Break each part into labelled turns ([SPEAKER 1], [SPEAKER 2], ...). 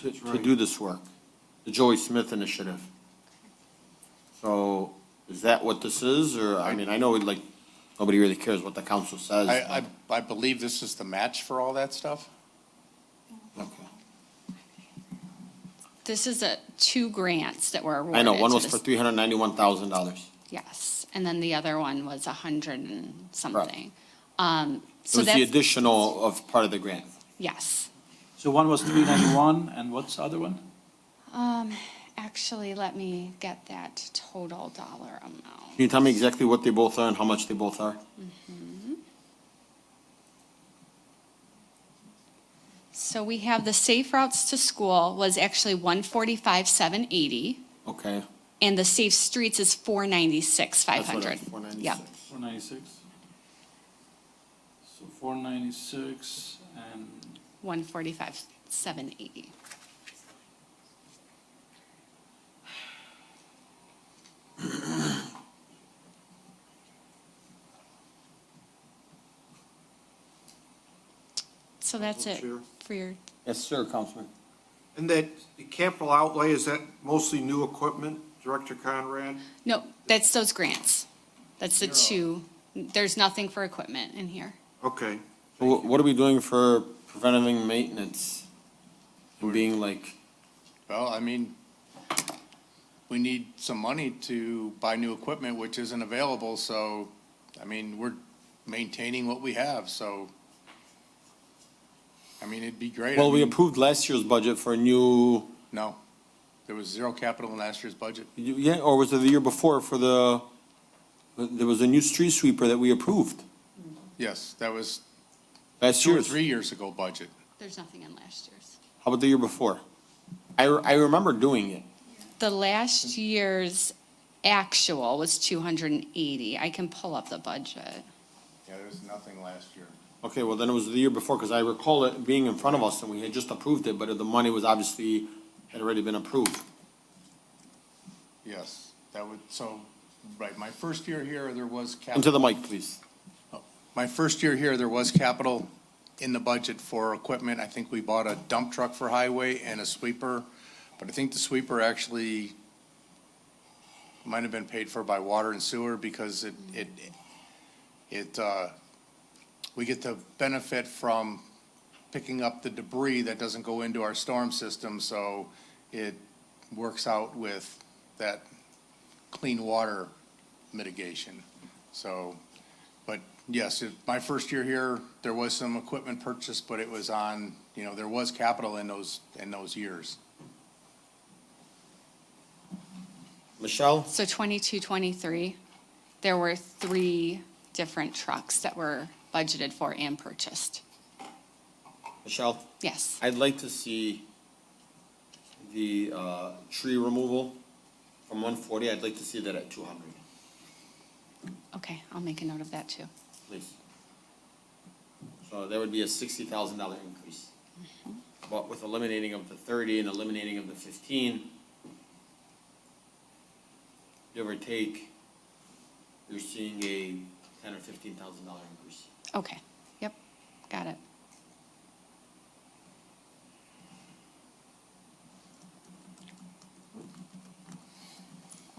[SPEAKER 1] to, to do this work, the Joey Smith Initiative. So is that what this is, or, I mean, I know, like, nobody really cares what the council says.
[SPEAKER 2] I, I, I believe this is the match for all that stuff.
[SPEAKER 1] Okay.
[SPEAKER 3] This is a, two grants that were awarded.
[SPEAKER 1] I know, one
[SPEAKER 3] to
[SPEAKER 1] was for
[SPEAKER 3] this-
[SPEAKER 1] three hundred ninety-one thousand dollars.
[SPEAKER 3] Yes, and then the other one was a hundred and something. Um,
[SPEAKER 1] It
[SPEAKER 3] so
[SPEAKER 1] was the
[SPEAKER 3] that's,
[SPEAKER 1] additional of part of the grant.
[SPEAKER 3] yes.
[SPEAKER 4] So one was three ninety-one, and what's the other one?
[SPEAKER 3] Um, actually, let me get that total dollar amount.
[SPEAKER 1] Can you tell me exactly what they both are and how much they both are?
[SPEAKER 3] So we have the Safe Routes to School was actually one forty-five, seven eighty,
[SPEAKER 1] Okay.
[SPEAKER 3] and the Safe Streets is four ninety-six, five hundred.
[SPEAKER 1] Four
[SPEAKER 3] Yep,
[SPEAKER 1] ninety-six.
[SPEAKER 4] Four ninety-six. So four ninety-six and
[SPEAKER 3] one forty-five, seven eighty. So that's it
[SPEAKER 5] Chair.
[SPEAKER 3] for your,
[SPEAKER 1] Yes, sir, Councilman.
[SPEAKER 5] And that, the capital outlay, is that mostly new equipment, Director Conrad?
[SPEAKER 3] no, that's those grants. That's the two. There's nothing for equipment in here.
[SPEAKER 5] Okay,
[SPEAKER 1] Wh- What are we doing for preventative maintenance? And being like,
[SPEAKER 2] Well, I mean, we need some money to buy new equipment, which isn't available, so, I mean, we're maintaining what we have, so. I mean, it'd be great. I
[SPEAKER 1] well, we
[SPEAKER 2] mean,
[SPEAKER 1] approved last year's budget for a new,
[SPEAKER 2] No, there was zero capital in last year's budget.
[SPEAKER 1] yeah, or was it the year before for the, there was a new street sweeper that we approved
[SPEAKER 2] Yes, that was
[SPEAKER 1] last
[SPEAKER 2] two
[SPEAKER 1] year.
[SPEAKER 2] or three years ago budget.
[SPEAKER 3] There's nothing in last year's.
[SPEAKER 1] How about the year before? I, re- I remember doing it.
[SPEAKER 3] The last year's actual was two hundred and eighty. I can pull up the budget.
[SPEAKER 2] Yeah, there was nothing last year.
[SPEAKER 1] Okay, well, then it was the year before, because I recall it being in front of us, and we had just approved it, but the money was obviously, had already been approved.
[SPEAKER 2] Yes, that would, so, right, my first year here, there was capital.
[SPEAKER 1] Into the mic, please.
[SPEAKER 2] My first year here, there was capital in the budget for equipment. I think we bought a dump truck for highway and a sweeper, but I think the sweeper actually might have been paid for by water and sewer because it, it, it, uh, we get the benefit from picking up the debris that doesn't go into our storm system, so it works out with that clean water mitigation. So, but yes, it- my first year here, there was some equipment purchased, but it was on, you know, there was capital in those, in those years.
[SPEAKER 1] Michelle?
[SPEAKER 3] So 22, 23, there were three different trucks that were budgeted for and purchased.
[SPEAKER 1] Michelle?
[SPEAKER 3] Yes.
[SPEAKER 1] I'd like to see the, uh, tree removal from one forty, I'd like to see that at two hundred,
[SPEAKER 3] Okay, I'll make a note of that too.
[SPEAKER 1] please. So that would be a sixty thousand dollar increase. But with eliminating of the thirty and eliminating of the fifteen, give or take, you're seeing a ten or fifteen thousand dollar increase.
[SPEAKER 3] Okay, yep, got it.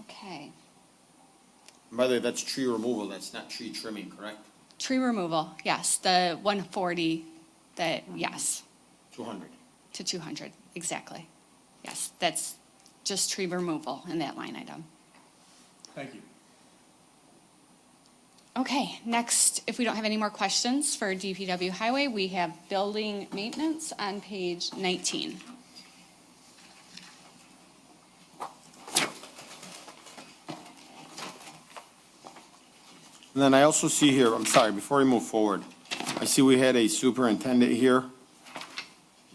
[SPEAKER 3] Okay,
[SPEAKER 1] And By the way, that's tree removal, that's not tree trimming, correct?
[SPEAKER 3] tree removal, yes, the 140, the, yes,
[SPEAKER 1] Two hundred.
[SPEAKER 3] to 200, exactly. Yes, that's just tree removal in that line item.
[SPEAKER 2] Thank you.
[SPEAKER 3] Okay, next, if we don't have any more questions for DPW Highway, we have building maintenance on page 19.
[SPEAKER 1] And then I also see here, I'm sorry, before we move forward, I see we had a superintendent here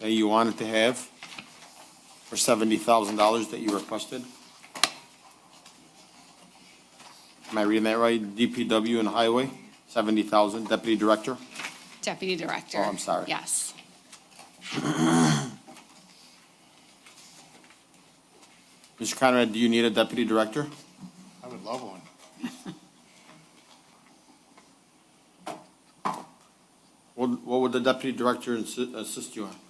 [SPEAKER 1] that you wanted to have for seventy thousand dollars that you requested. Am I reading that right? DPW and Highway, seventy thousand, Deputy Director?
[SPEAKER 3] Deputy Director.
[SPEAKER 1] Oh, I'm sorry.
[SPEAKER 3] Yes.
[SPEAKER 1] Mr. Conrad, do you need a Deputy Director?
[SPEAKER 2] I would love one.
[SPEAKER 1] What, what would the Deputy Director assi- assist you on?